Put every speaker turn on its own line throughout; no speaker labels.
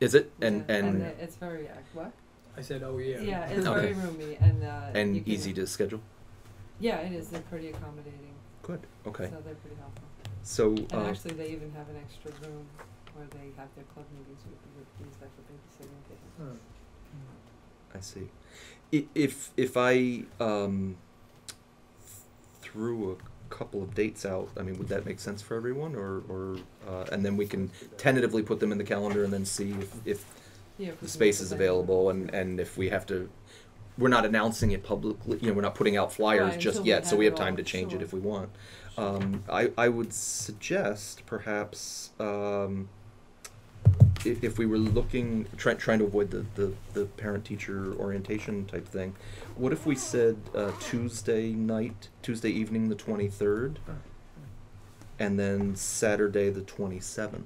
Is it? And
Yeah, uh,
and
it- it's very ac- what?
I said, oh
Yeah,
yeah.
it's
Okay.
very roomy and uh,
and
you can-
easy to schedule.
Yeah, it is. They're pretty accommodating.
Good. Okay.
So they're pretty helpful.
So
And
uh,
actually, they even have an extra room where they have their club meetings with with these that for babysitting. if they have-
Huh.
I see. I- If if I um, threw a couple of dates out, I mean, would that make sense for everyone, or or uh, and then we can tentatively put them in the calendar and then see if, if
Yeah, if we
the
can
space
make
is
it available.
available and and if we have to. We're not announcing it publicly. You know, we're not putting out flyers
Right,
just
until we
yet, so
have
we have
it
time
all,
to change it
sure.
if we want.
Sure.
Um, I, I would suggest perhaps um, if, if we were looking, try, trying to avoid the, the, the parent teacher orientation type thing, what if we said uh, Tuesday night, Tuesday evening the 23rd,
Oh,
and then Saturday the 27th?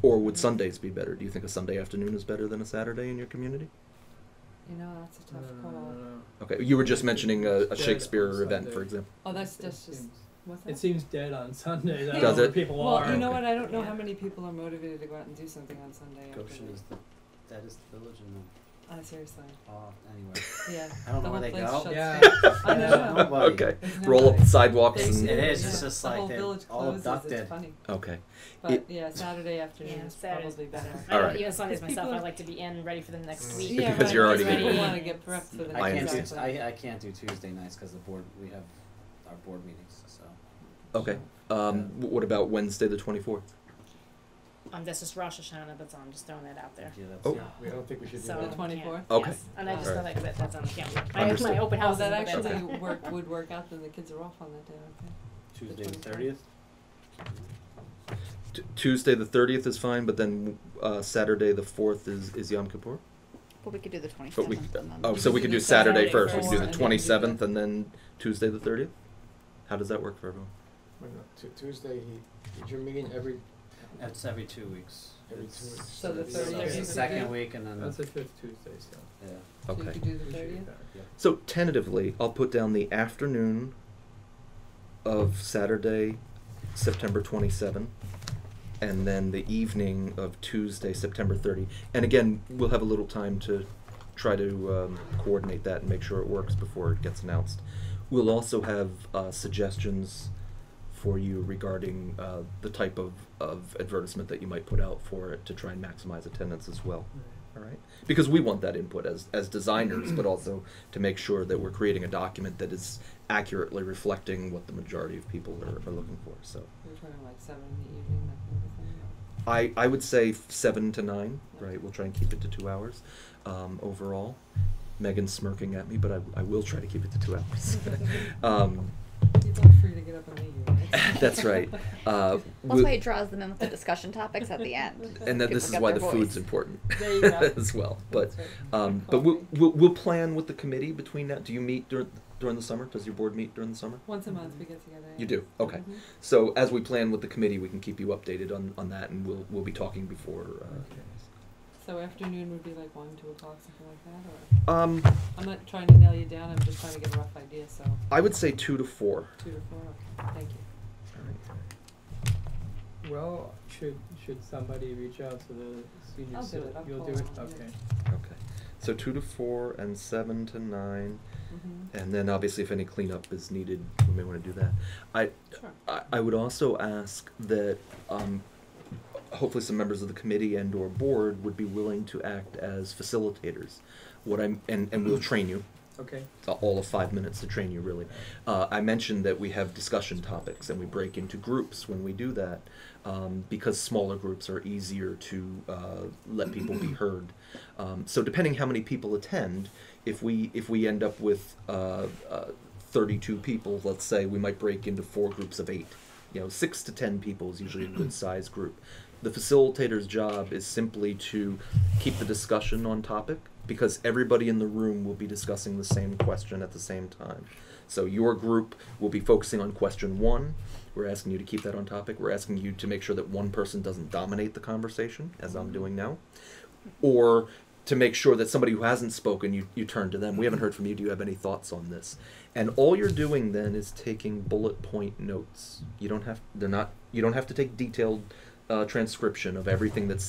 Or would Sundays be better? Do you think a Sunday afternoon is better than a Saturday in your community?
You know, that's a tough
no, no,
call.
no, no.
Okay, you were just mentioning a,
It's
a
dead on
Shakespeare event,
Sunday.
for example.
Oh, that's
It
that's just
seems-
what's that?
It seems dead on Sundays. I don't
Does
know where
it?
people
well,
are.
you know
Okay.
what? I don't know how
Yeah.
many people are motivated to go out and do something on Sunday.
Goshen
afternoon.
is the that is the village in the
Ah, seriously.
oh anyway.
Yeah.
I don't
the
know where
whole
they
place
go.
shuts
Yeah.
down. I
There's
know.
nobody.
Okay,
There's
roll up
nobody.
the sidewalks
They
It's-
and.
do,
is,
yeah.
it's just
the
like
whole
they're
village
all
closes.
abducted.
It's funny,
Okay.
but
It-
yeah, Saturday afternoon
Yeah,
is
Saturday's
probably better.
I
All
don't
right.
even Sundays
Because
myself.
people
I
are-
like to be in ready for the next
Mm.
week.
Yeah,
Because
right,
you're already
people
getting-
want to get prepped for the
I
next
can't do
understand.
exactly.
I, I can't do Tuesday nights because the board we have our board meetings. So
Okay. Um, wh- what about Wednesday the 24th?
Um, that's just Rosh Hashanah that's on. Just throwing that out there.
yeah, that's
Oh.
yeah.
We don't think we should do
So
that.
The 24th?
Yes.
Okay.
And I just
Alright.
thought like that that's on the calendar. I have
Understood.
my open
Oh,
house.
that
is the best.
actually work would work out. Then the kids are off on that day. Okay.
Tuesday the
24th.
thirtieth.
T- Tuesday the 30th is fine, but then uh, Saturday the 4th is, is Yom Kippur.
But we could do the twenty
But we-
seventh.
Oh,
We
so
could
we
do
could
the
do Saturday
Saturday
first. We
first,
could do
and
the
then
do
27th and then Tuesday the 30th. How does that work for everyone?
Wait, no, Tu- Tuesday, he, is your meeting every,
It's every two weeks.
Every
It's-
two weeks.
So the
it's-
30th
It's the
is the
second
fifth?
week and then
That's the fifth Tuesday, so.
yeah.
So you
Okay.
could do
we
the
should be
thirtieth.
back.
So tentatively, I'll put down the afternoon of Saturday, September 27, and then the evening of Tuesday, September 30. And again, we'll have a little time to try to um, coordinate that and make sure it works before it gets announced. We'll also have uh, suggestions for you regarding uh, the type of, of advertisement that you might put out for it to try and maximize attendance as well. All right, because we want that input as as designers, but also to make sure that we're creating a document that is accurately reflecting what the majority of people are, are looking for. So,
We're talking like seven in the evening. That kind of thing.
I I would say seven to nine. Right, we'll try and keep it to two hours um, overall. Megan's smirking at me, but I, I will try to keep it to two hours. um,
People are free to get up and leave. right?
that's right. Uh,
That's
we-
why it draws them in with the discussion topics at the end.
and that
People
this is
get
why
their
the food's
voice.
important
There you go.
as well. But
That's right.
um, but we'll, we'll we'll plan with the committee between that. Do you meet during during the summer? Does your board meet during the summer?
Once a month we get together. yeah.
You do. Okay.
Mhm.
So as we plan with the committee, we can keep you updated on, on that, and we'll we'll be talking before. uh,
Okay.
So afternoon would be like one, two o'clock, something like that, or
Uh, um,
I'm not trying to nail you down. I'm just trying to get a rough idea. So
I would say two to four.
two to four. Okay. Thank you.
Well, should, should somebody reach out to the senior
I'll do
citi-
it. I'll
You'll
call
do it?
them, yeah.
Okay.
Okay. So two to four and seven to nine,
Mm-hmm.
and then obviously if any cleanup is needed, we may want to do that. I
Sure.
I, I would also ask that um, hopefully some members of the committee and or board would be willing to act as facilitators. What I'm and, and we'll train you.
Okay.
uh, all of five minutes to train you really uh, i mentioned that we have discussion topics and we break into groups when we do that um, because smaller groups are easier to uh, let people be heard um, so depending how many people attend if we if we end up with uh, uh, 32 people let's say we might break into four groups of eight you know six to ten people is usually a good size group the facilitator's job is simply to keep the discussion on topic because everybody in the room will be discussing the same question at the same time. So your group will be focusing on question one. We're asking you to keep that on topic. We're asking you to make sure that one person doesn't dominate the conversation, as I'm doing now, or to make sure that somebody who hasn't spoken, you, you turn to them. We haven't heard from you. Do you have any thoughts on this? And all you're doing then is taking bullet point notes. You don't have they're not you don't have to take detailed uh, transcription of everything that's